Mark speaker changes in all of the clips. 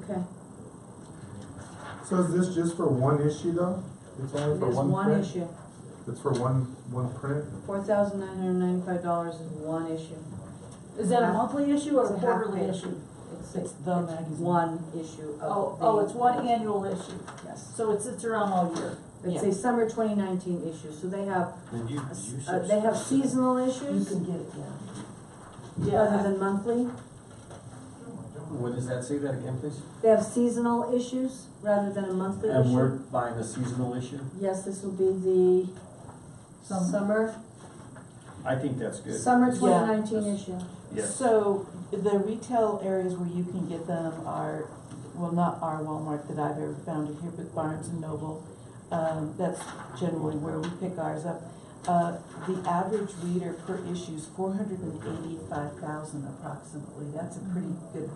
Speaker 1: Okay,
Speaker 2: So is this just for one issue though? It's only for
Speaker 1: there's
Speaker 2: one
Speaker 1: one
Speaker 2: print?
Speaker 1: issue.
Speaker 2: It's for one, one print?
Speaker 1: Four thousand nine hundred ninety-five dollars is one issue.
Speaker 3: Is that a monthly issue
Speaker 1: It's
Speaker 3: or
Speaker 1: a
Speaker 3: a
Speaker 1: half
Speaker 3: quarterly
Speaker 1: page.
Speaker 3: issue?
Speaker 1: It's,
Speaker 3: It's
Speaker 1: it's
Speaker 3: the magazine.
Speaker 1: one issue
Speaker 3: Oh,
Speaker 1: of the.
Speaker 3: oh, it's one annual issue,
Speaker 1: Yes.
Speaker 3: so it sits around all year.
Speaker 1: It's
Speaker 3: Yeah.
Speaker 1: a summer twenty nineteen issue, so they have,
Speaker 4: Then you,
Speaker 1: a s-
Speaker 4: you
Speaker 1: uh,
Speaker 4: said.
Speaker 1: they have seasonal issues
Speaker 3: get it, yeah.
Speaker 1: other than monthly.
Speaker 4: What does that say that again, please?
Speaker 1: They have seasonal issues rather than a monthly issue.
Speaker 4: And we're buying a seasonal issue?
Speaker 1: Yes, this will be the
Speaker 3: Summer.
Speaker 1: summer,
Speaker 4: I think that's good.
Speaker 1: summer
Speaker 5: Yeah.
Speaker 1: twenty nineteen issue.
Speaker 4: Yes.
Speaker 5: So the retail areas where you can get them are, well, not our Walmart that I've ever found in here, but Barnes and Noble. Um, that's generally where we pick ours up. Uh, the average reader per issue is four hundred and eighty-five thousand approximately. That's a pretty good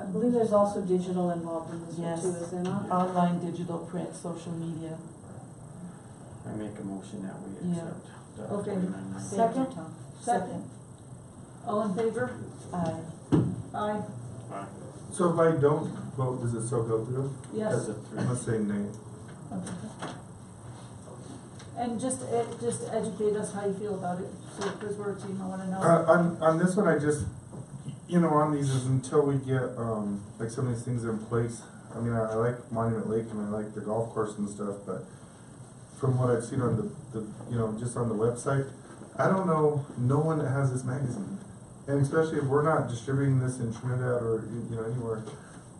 Speaker 1: I believe there's also digital involved in this one
Speaker 5: Yes.
Speaker 1: too, is there not?
Speaker 5: online, digital, print, social media.
Speaker 4: I make a motion that we
Speaker 5: Yeah.
Speaker 4: accept. the
Speaker 3: Okay.
Speaker 4: 49.
Speaker 1: Second?
Speaker 3: Second. All in favor?
Speaker 5: Uh,
Speaker 3: Aye,
Speaker 2: So if I don't vote, does it still go through?
Speaker 3: yes.
Speaker 4: That's a three.
Speaker 2: I'm gonna say nay.
Speaker 3: Okay. And just, e- just educate us how you feel about it, so, because we're a team, I wanna
Speaker 2: Uh,
Speaker 3: know.
Speaker 2: on, on this one, I just, you know, on these is until we get, um, like some of these things in place. I mean, I, I like Monument Lake and I like the golf course and stuff, but from what I've seen on the, the, you know, just on the website, I don't know, no one that has this magazine. And especially if we're not distributing this in Trinidad or, you you know, anywhere,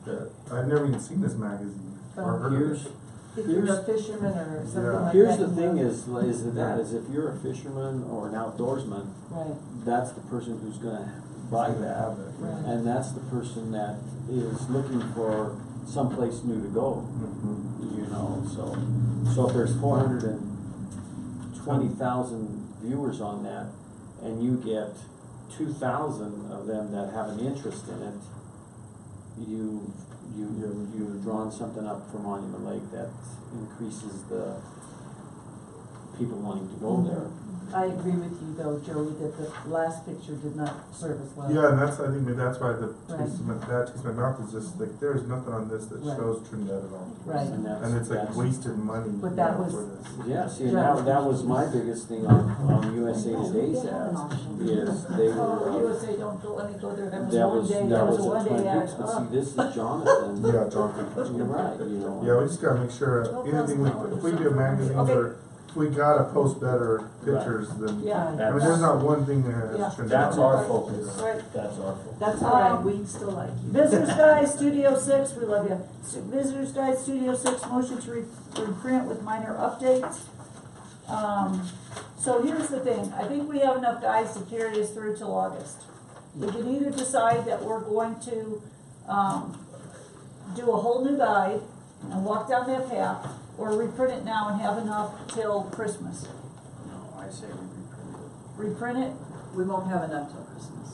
Speaker 2: that, I've never even seen this magazine or heard of
Speaker 4: Here's,
Speaker 2: it.
Speaker 5: if you're a
Speaker 4: Here's-
Speaker 5: fisherman or something
Speaker 2: Yeah.
Speaker 5: like that.
Speaker 4: here's the
Speaker 5: you
Speaker 4: thing
Speaker 5: know.
Speaker 4: is, is that, is if you're a fisherman or an outdoorsman,
Speaker 5: Right,
Speaker 4: that's the person who's gonna buy that.
Speaker 5: Right.
Speaker 4: And that's the person that is looking for someplace new to go.
Speaker 2: Mhm.
Speaker 4: you know, so, so if there's four hundred and twenty thousand viewers on that, and you get two thousand of them that have an interest in it, you, you, you've- you've drawn something up for Monument Lake that increases the people wanting to go there.
Speaker 5: I agree with you though, Joey, that the last picture did not serve us well.
Speaker 2: Yeah, and that's, I think maybe that's why the
Speaker 5: Right.
Speaker 2: taste of my, that taste of my mouth is just like, there is nothing on this that
Speaker 5: Right.
Speaker 2: shows Trinidad at all.
Speaker 5: Right.
Speaker 4: And that's-
Speaker 2: And it's like
Speaker 4: that's-
Speaker 2: wasted money.
Speaker 5: But that was-
Speaker 2: for this.
Speaker 4: Yeah, see, and that, that was my biggest thing on, on USA Today's ads, is they were,
Speaker 3: Oh,
Speaker 4: uh,
Speaker 3: USA don't go, let me go there, that was
Speaker 4: That
Speaker 3: one
Speaker 4: was,
Speaker 3: day,
Speaker 4: that
Speaker 3: that was
Speaker 4: was
Speaker 3: a
Speaker 4: a
Speaker 3: one day
Speaker 4: twenty
Speaker 3: ad,
Speaker 4: weeks, but see,
Speaker 3: oh,
Speaker 4: this is Jonathan.
Speaker 2: Yeah, Jonathan.
Speaker 4: You're right, you know.
Speaker 2: Yeah, we just gotta make sure, anything we, if we do magazines or, we gotta post better pictures than,
Speaker 3: yeah.
Speaker 2: I mean, there's not one thing there
Speaker 3: Yeah.
Speaker 2: that's Trinidad.
Speaker 4: That's our focus,
Speaker 3: Right,
Speaker 4: that's our focus.
Speaker 5: That's all right, we still like you.
Speaker 3: Visitors Guide, Studio Six, we love you. S- Visitors Guide, Studio Six, motion to re- reprint with minor updates. Um, so here's the thing, I think we have enough guys to carry us through till August. We can either decide that we're going to, um, do a whole new guide and walk down that path, or reprint it now and have enough till Christmas.
Speaker 4: No, I say we reprint
Speaker 3: Reprint it,
Speaker 1: We won't have enough till Christmas.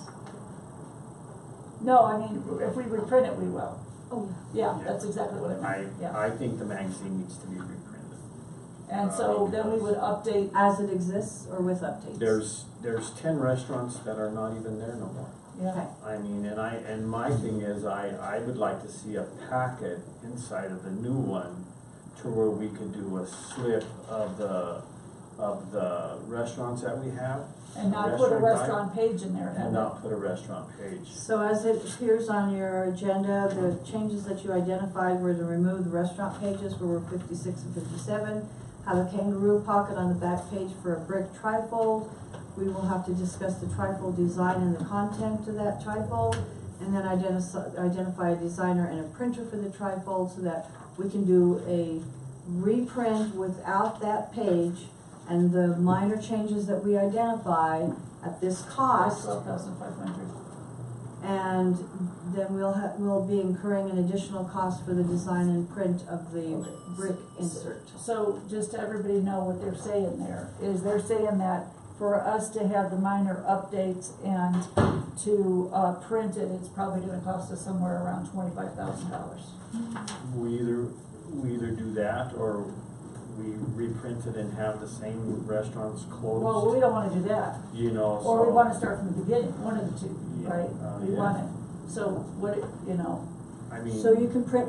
Speaker 3: no, I mean, if we reprint it, we will.
Speaker 1: Oh,
Speaker 3: Yeah, that's exactly what I meant,
Speaker 4: it.
Speaker 3: yeah.
Speaker 4: I, I think the magazine needs to be reprinted.
Speaker 3: And
Speaker 4: Uh,
Speaker 3: so then we would update
Speaker 1: As it exists or with updates?
Speaker 4: There's, there's ten restaurants that are not even there no more.
Speaker 3: Yeah,
Speaker 1: Okay.
Speaker 4: I mean, and I, and my thing is, I, I would like to see a packet inside of the new one to where we could do a slip of the, of the restaurants that we have
Speaker 3: and not put a
Speaker 4: Restaurant
Speaker 3: restaurant page in there.
Speaker 4: and not put a restaurant page.
Speaker 1: So as it appears on your agenda, the changes that you identified were to remove the restaurant pages where we're fifty-six and fifty-seven, have a kangaroo pocket on the back page for a brick trifold. We will have to discuss the trifold design and the content to that trifold, and then identify, identify a designer and a printer for the trifold so that we can do a reprint without that page and the minor changes that we identify at this cost.
Speaker 3: Twelve thousand five hundred.
Speaker 1: And then we'll ha we'll be incurring an additional cost for the design and print of the
Speaker 3: Okay.
Speaker 1: brick insert.
Speaker 3: So just to everybody know what they're saying there, is they're saying that for us to have the minor updates and to, uh, print it, it's probably gonna cost us somewhere around twenty-five thousand dollars.
Speaker 4: We either, we either do that or we reprint it and have the same restaurants
Speaker 3: Well,
Speaker 4: closed,
Speaker 3: we don't wanna do that,
Speaker 4: you know, so.
Speaker 3: or we wanna start from the beginning, one of the two,
Speaker 4: Yeah,
Speaker 3: right?
Speaker 4: uh,
Speaker 3: We
Speaker 4: yeah.
Speaker 3: want it, so what, it- you know,
Speaker 6: I mean.
Speaker 3: So you can print